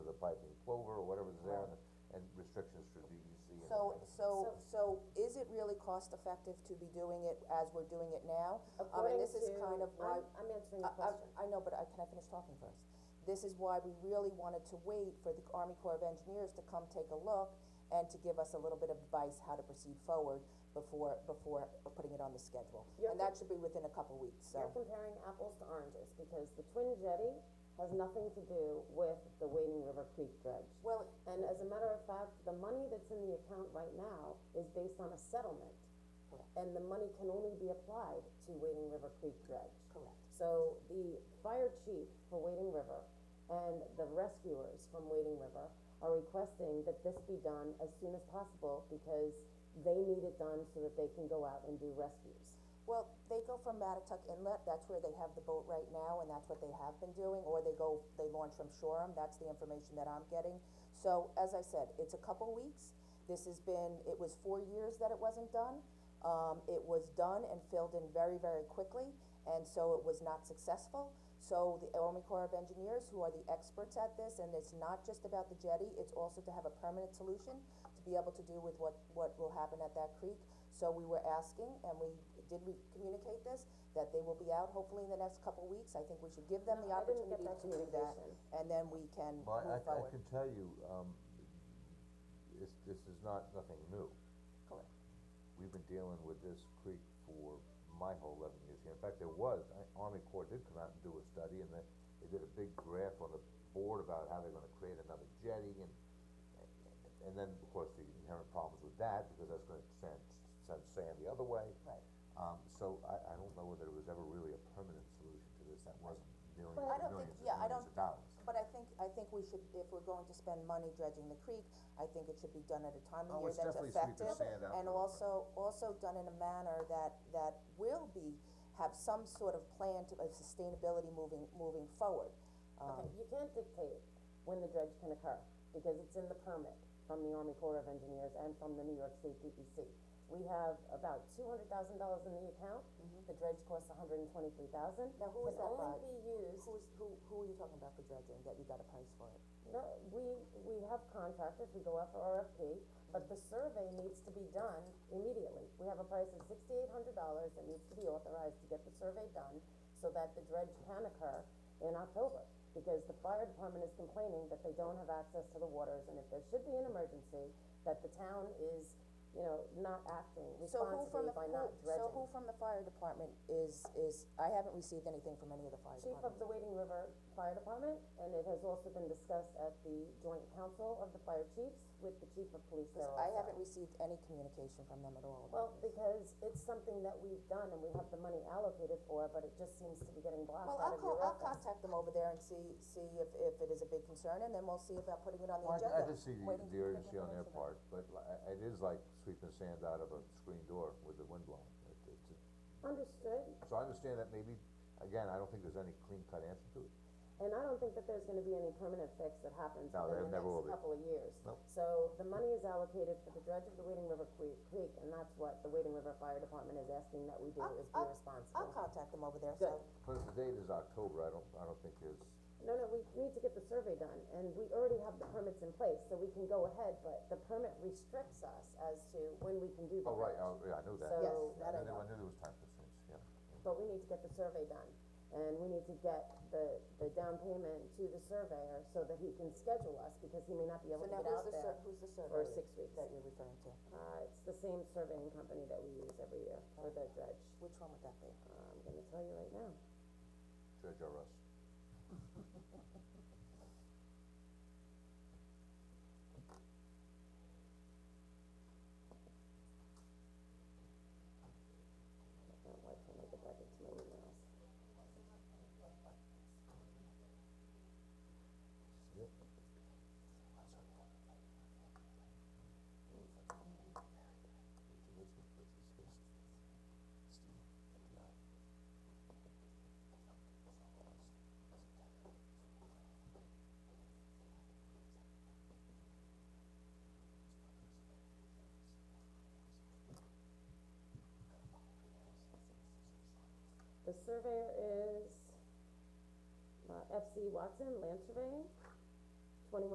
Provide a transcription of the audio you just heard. might be clover or whatever's there, and, the- and restrictions through DEC and. So, so, so is it really cost effective to be doing it as we're doing it now? Um, and According this is to- kind of why. I'm- I'm answering I- the I- question. I know, but I, can I finish talking first? This is why we really wanted to wait for the Army Corps of Engineers to come take a look and to give us a little bit of advice how to proceed forward before, before putting it on the schedule. You're And that should be within a couple weeks, so. You're comparing apples to oranges, because the Twin Jetty has nothing to do with the Wading River Creek dredge. Well- And as a matter of fact, the money that's in the account right now is based on a settlement. And the money can only be applied to Wading River Creek dredge. Correct. So the fire chief for Wading River and the rescuers from Wading River are requesting that this be done as soon as possible, because they need it done so that they can go out and do rescues. Well, they go from Matituck Inlet, that's where they have the boat right now, and that's what they have been doing, or they go, they launch from Shoreham, that's the information that I'm getting. So, as I said, it's a couple weeks, this has been, it was four years that it wasn't done. Um, it was done and filled in very, very quickly, and so it was not successful. So the Army Corps of Engineers, who are the experts at this, and it's not just about the jetty, it's also to have a permanent solution to be able to do with what, what will happen at that creek. So we were asking, and we, did we communicate this, that they will be out hopefully in the next couple of weeks. I think we should give them the No, I didn't get opportunity to that do that, communication. and then we can move But I, forward. I can tell you, um, it's, this is not, nothing new. Correct. We've been dealing with this creek for my whole eleven years here. In fact, there was, I- Army Corps did come out and do a study, and they, they did a big graph on the board about how they're gonna create another jetty, and, and then, of course, the inherent problems with that, because that's gonna send, send sand the other way. Right. Um, so I, I don't know whether it was ever really a permanent solution to this, that wasn't millions But I and don't millions think, and yeah, I millions don't, of dollars. but I think, I think we should, if we're going to spend money dredging the creek, I think it should be done at a time of Oh, year it's that's definitely sweeping effective. sand out And from the front. also, also done in a manner that, that will be, have some sort of plan to, of sustainability moving, moving forward. Uh, Okay, you can't dictate when the dredge can occur, because it's in the permit from the Army Corps of Engineers and from the New York State DEC. We have about two hundred thousand dollars in the account, the dredge costs $123,000. Mm-hmm. Now, who is that Can by? only be used, Who's, who, who are you talking about for dredging, that you got a price for it? no, we, we have contractors, we go out for RFP, but the survey needs to be done immediately. We have a price of sixty-eight hundred dollars that needs to be authorized to get the survey done, so that the dredge can occur in October. Because the fire department is complaining that they don't have access to the waters, and if there should be an emergency, that the town is, you know, not acting So who from responsibly the, by who, not dredging. so who from the fire department is, is, I haven't received anything from any of the fire Chief of departments. the Wading River Fire Department, and it has also been discussed at the joint council of the fire chiefs with the chief of police there I also. haven't received any communication from them at all about Well, because it's something that we've done and we have the money allocated for, but it just seems to be getting blocked Well, out I'll of call, your I'll office. contact them over there and see, see if, if it is a big concern, and then we'll see about putting it on the Well, agenda. I, I just see the, waiting the for urgency on their information. part, but li- I- it is like sweeping sand out of a screen door with the wind blowing. It- it's a- Understood, So I understand that maybe, again, I don't think there's any clean cut answer to it. and I don't think that there's gonna be any permanent fix that happens No, there within the never will be. next couple of years. Nope. So the money is allocated for the dredge of the Wading River Creek, Creek, and that's what the Wading River Fire Department is asking that we do, I'll- is be I'll- responsible. I'll contact them over there, so, Good. But if the date is October, I don't, I don't think there's, No, no, we need to get the survey done, and we already have the permits in place, so we can go ahead, but the permit restricts us as to when we can do the oh, right, dredge. oh, yeah, I knew that. So, Yes, I that I knew, I know. knew there was time constraints, yeah. but we need to get the survey done, and we need to get the, the down payment to the surveyor so that he can schedule us, because he may not be so able to now get who's out the there. sur- who's the for surveyor six weeks. that you're referring to? Uh, it's the same surveying company that we use every year for the dredge, Which one would that be? Uh, I'm gonna tell you right now. Judge R. Us. Oh, why can't I get back into my emails? The surveyor is, uh, F C Watson Land Surveying.